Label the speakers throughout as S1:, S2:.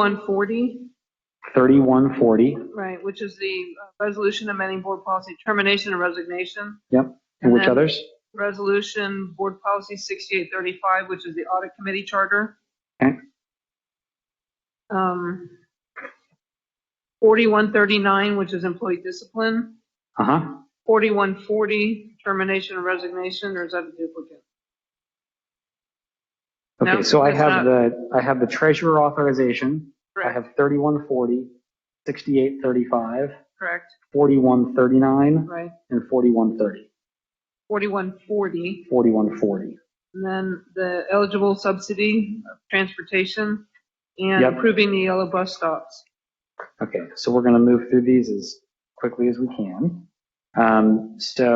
S1: 3140,
S2: 3140,
S1: right, which is the uh, resolution amending board policy termination and resignation.
S2: yep. And which
S1: And then-
S2: others?
S1: Resolution, board policy 6835, which is the audit committee charter.
S2: Okay.
S1: Um, 4139, which is employee discipline.
S2: Uh-huh.
S1: 4140, termination and resignation, or is that a duplicate? No,
S2: Okay, so I
S1: that's not-
S2: have the, I have the treasurer authorization. I
S1: Correct,
S2: have 3140, 6835,
S1: correct,
S2: 4139,
S1: right.
S2: and 4130,
S1: 4140,
S2: 4140.
S1: and then the eligible subsidy of transportation and
S2: Yep.
S1: approving the yellow bus stops.
S2: Okay, so we're going to move through these as quickly as we can. Um, So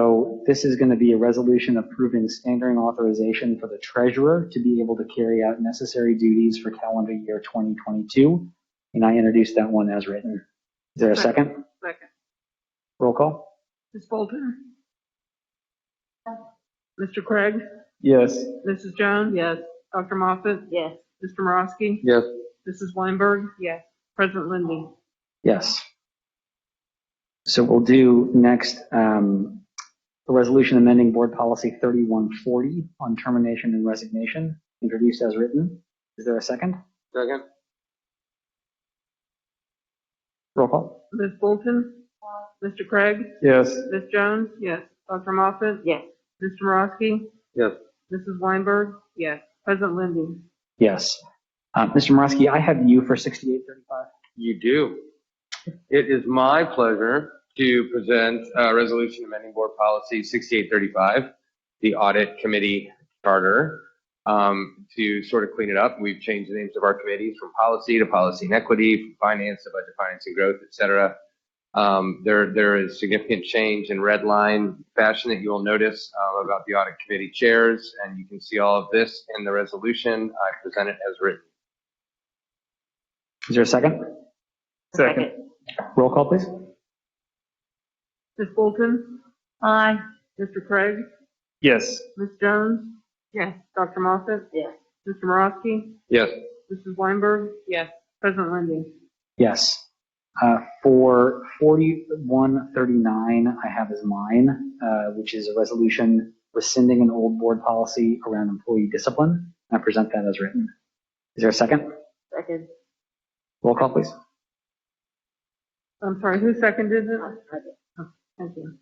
S2: this is going to be a resolution approving standing authorization for the treasurer to be able to carry out necessary duties for calendar year 2022. And I introduced that one as written. Is there a second?
S1: Second.
S2: Roll call?
S1: Ms. Bolton? Mr. Craig?
S2: Yes.
S1: Mrs. Jones? Yes. Dr. Moffat?
S3: Yes.
S1: Mr. Morosky?
S2: Yes.
S1: Mrs. Weinberg? Yes. President Lindy?
S2: Yes. So we'll do next, um, a resolution amending board policy 3140 on termination and resignation, introduced as written. Is there a second?
S4: Second?
S2: Roll call?
S1: Ms. Bolton? Mr. Craig?
S2: Yes.
S1: Ms. Jones? Yes. Dr. Moffat?
S3: Yes.
S1: Mr. Morosky?
S4: Yes.
S1: Mrs. Weinberg? Yes. President Lindy?
S2: Yes. Uh, Mr. Morosky, I have you for 6835.
S4: You do. It is my pleasure to present uh, Resolution Amending Board Policy 6835, the Audit Committee Charter, um, to sort of clean it up. We've changed the names of our committees from policy to policy and equity, from finance to budget, finance and growth, et cetera. Um, There, there is significant change in red line fashion that you will notice uh, about the Audit Committee chairs, and you can see all of this in the resolution. I present it as written.
S2: Is there a second?
S3: Second.
S2: Roll call, please.
S1: Ms. Bolton?
S3: Aye.
S1: Mr. Craig?
S2: Yes.
S1: Ms. Jones? Yes. Dr. Moffat?
S3: Yes.
S1: Mr. Morosky?
S4: Yes.
S1: Mrs. Weinberg? Yes. President Lindy?
S2: Yes. Uh, For 4139, I have as mine, uh, which is a resolution rescinding an old board policy around employee discipline. I present that as written. Is there a second?
S3: Second.
S2: Roll call, please.
S1: I'm sorry, who seconded it? Oh, Thank you.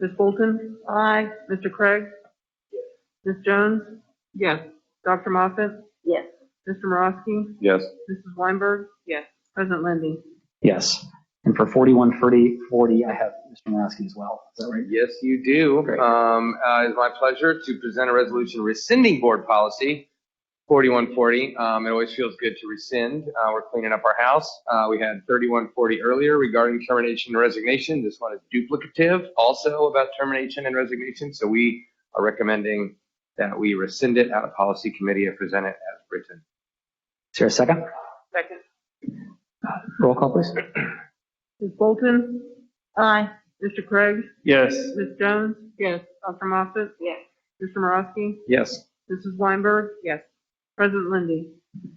S1: Ms. Bolton? Aye. Mr. Craig? Ms. Jones? Yes. Dr. Moffat?
S3: Yes.
S1: Mr. Morosky?
S4: Yes.
S1: Mrs. Weinberg? Yes. President Lindy?
S2: Yes. And for 4140, I have Mr. Morosky as well. Is that right?
S4: Yes, you do.
S2: Great.
S4: Um, uh, It's my pleasure to present a resolution rescinding board policy 4140. Um, It always feels good to rescind. Uh, We're cleaning up our house. Uh, We had 3140 earlier regarding termination and resignation. This one is duplicative also about termination and resignation. So we are recommending that we rescind it out of policy committee and present it as written.
S2: Is there a second?
S1: Second.
S2: Roll call, please.
S1: Ms. Bolton?
S3: Aye.
S1: Mr. Craig?
S4: Yes.
S1: Ms. Jones? Yes. Dr. Moffat?
S3: Yes.
S1: Mr. Morosky?
S4: Yes.
S1: Mrs. Weinberg? Yes. President Lindy?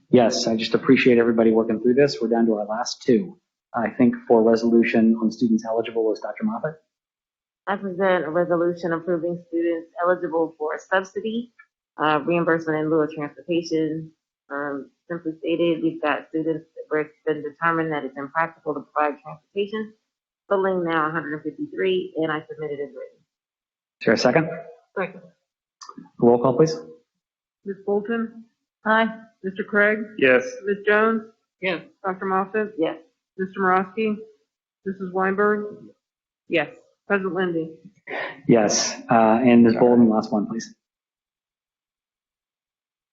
S2: Yes, I just appreciate everybody working through this. We're down to our last two. I think for resolution on students eligible is Dr. Moffat.
S3: I present a resolution approving students eligible for subsidy, uh, reimbursement in lieu of transportation. Um, simply stated, we've got students where it's been determined that it's impractical to provide transportation, totaling now 153, and I submitted as written.
S2: Is there a second?
S1: Second.
S2: Roll call, please.
S1: Ms. Bolton?
S3: Aye.
S1: Mr. Craig?
S4: Yes.
S1: Ms. Jones? Yes. Dr. Moffat?
S3: Yes.
S1: Mr. Morosky? Mrs. Weinberg? Yes. President Lindy?
S2: Yes, uh, and Ms. Bolden, last one, please.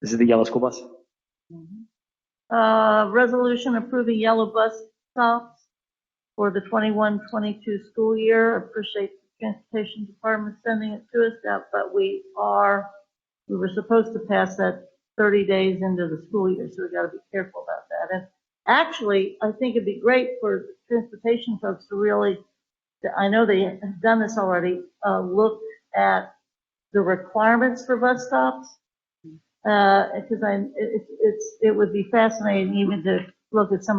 S2: This is the yellow school bus.
S5: Uh, resolution approving yellow bus stops for the 21-22 school year. Appreciate the transportation department sending it to us that, but we are, we were supposed to pass that thirty days into the school year, so we gotta be careful about that. And actually, I think it'd be great for transportation folks to really, I know they have done this already, uh, look at the requirements for bus stops because I'm, it, it's- it's, it would be fascinating even to look at some of